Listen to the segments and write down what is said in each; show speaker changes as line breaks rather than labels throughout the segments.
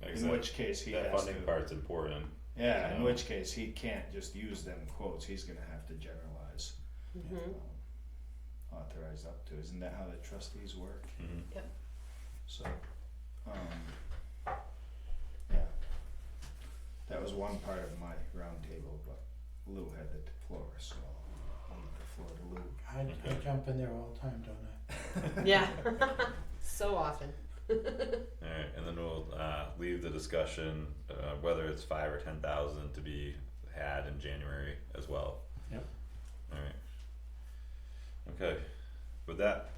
that-
in which case he
That
has to.
funding part's important.
Yeah, in
Yeah.
which case he can't just use them quotes, he's gonna have to generalize.
Mhm.
um, Authorized up to, isn't that how the trustees work?
Mhm.
Yep.
So, um, yeah. That was one part of my roundtable, but Lou had the floor, so I'll leave the floor to Lou.
I, I jump in there all the time, don't I?
Yeah. so often.
All right, and then we'll uh, leave the discussion uh, whether it's five or ten thousand to be had in January as well.
Yep.
All right. Okay, with that,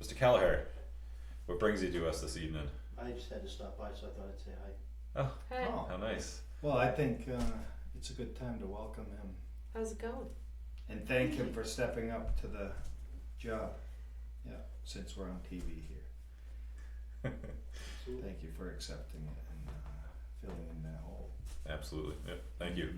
Mr. Kelleher, what brings you to us this evening?
I just had to stop by, so I thought I'd say hi.
Oh,
Hey,
Oh.
how nice!
Well, I think, uh, it's a good time to welcome him
how's it going?
and thank him for stepping up to the job. Yeah, since we're on TV here. Thank you for accepting it and uh, filling in that hole.
Absolutely. Yep. Thank you.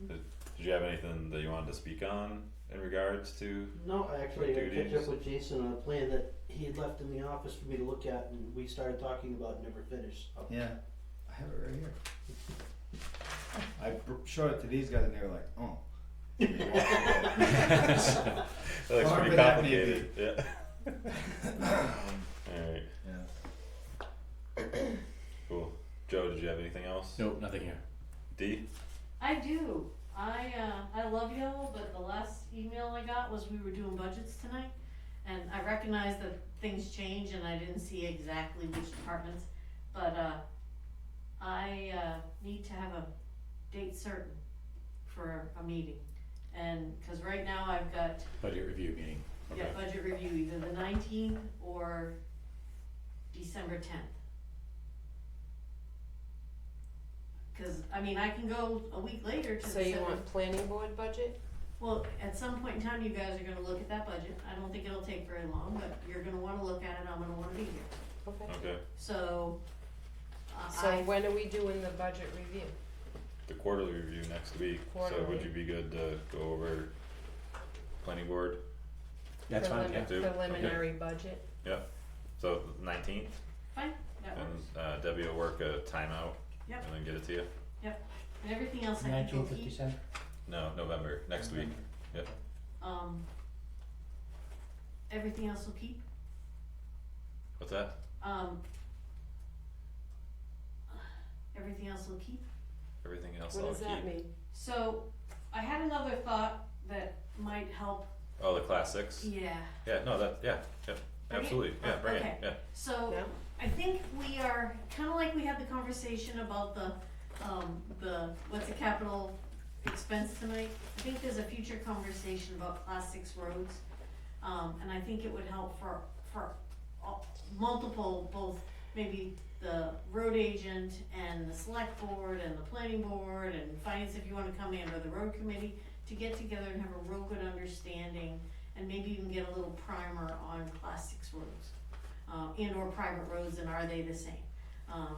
Mhm.
Did you have anything that you wanted to speak on in regards to?
No, I actually I catch
Duties.
up with Jason on a plan that he had left in the office for me to look at, and we started talking about and never finished. so.
Yeah, I have it right here. I br- showed it to these guys and they were like, oh. And they walked away.
that looks
However
pretty
that may be.
complicated. Yeah.
Um,
All right.
yeah.
Cool. Joe, did you have anything else?
Nope, nothing here.
D.
I do. I uh, I love y'all, but the last email I got was we were doing budgets tonight, and I recognize that things change, and I didn't see exactly which departments, but uh, I uh, need to have a date certain for a meeting, and because right now I've got
Budget review meeting. Okay.
yeah budget review either the nineteenth or December tenth. Because I mean, I can go a week later to
So
the
you
seven-
want planning board budget?
well, at some point in time, you guys are gonna look at that budget, I don't think it'll take very long, but you're gonna wanna look at it, I'm gonna wanna be here,
Okay.
Okay.
so. uh,
So
I,
when are we doing the budget review?
The quarterly review next week. So would
Quarterly.
you be good to go over planning board?
That's fine, yeah.
Prelimin-
do. Okay.
Preliminary budget?
So nineteenth,
that
and
works,
uh, Debbie will work a timeout.
Yep.
And then get it to you.
and everything else I can go
Nineteenth of
eat,
December.
No, November next week.
um. Everything else will keep,
What's that?
um. Everything else will keep,
Everything else
What
I'll
does
keep.
that mean?
so, I had another thought that might help,
Oh, the classics.
yeah,
Yeah. No, that. Yeah. Yep.
Bring it?
Absolutely. Yeah. Bring
Okay.
it. Yeah.
so.
No?
I think we are, kind of like we had the conversation about the, um, the, what's the capital expense tonight? I think there's a future conversation about class six roads, um, and I think it would help for, for all- multiple, both maybe the road agent and the select board and the planning board and finance if you wanna come in, or the road committee, to get together and have a real good understanding, and maybe even get a little primer on class six roads uh, and or private roads and are they the same? Um,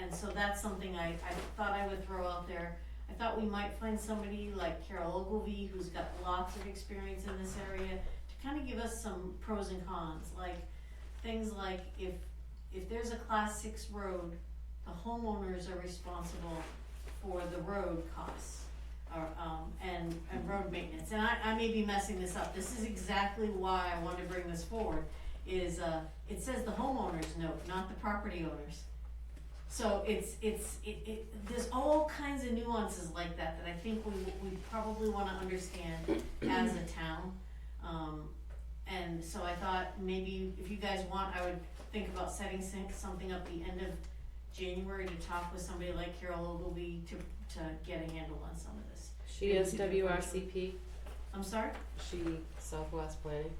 and so that's something I, I thought I would throw out there. I thought we might find somebody like Carol Ogilvy, who's got lots of experience in this area, to kind of give us some pros and cons, like things like if, if there's a class six road, the homeowners are responsible for the road costs. Or, um, and, and road maintenance, and I, I may be messing this up, this is exactly why I wanted to bring this forward, is, uh, it says the homeowner's note, not the property owner's. So it's, it's, it, it, there's all kinds of nuances like that that I think we, we probably wanna understand as a town. Um, and so I thought maybe if you guys want, I would think about setting some- something up the end of January to talk with somebody like Carol Ogilvy to, to get a handle on some of this.
She is WRCP,
I'm sorry?
she Southwest Planning,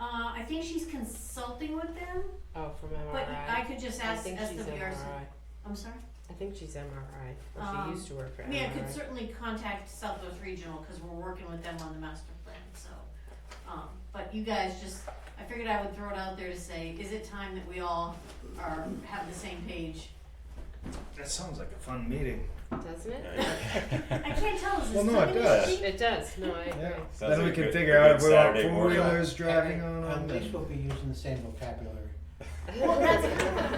Uh, I think she's consulting with them,
oh, from MRI.
but I could just
I
ask
think she's
SWRC.
MRI.
I'm sorry?
I think she's MRI, or
Um,
she used to work for MRI.
Yeah, could certainly contact Southwest Regional, cause we're working with them on the master plan, so, um, but you guys just, I figured I would throw it out there to say, is it time that we all are, have the same page?
That sounds like a fun meeting.
Doesn't it?
I can't tell, is
Well,
this
no, it
something
does.
she-
It does, no, I
Yeah.
agree.
Sounds
Then
like
we
a
can
good-
figure
a good
out if we want
Saturday
four
morning.
wheelers driving on
At
them.
least we'll be using the same vocabulary.
Well, that's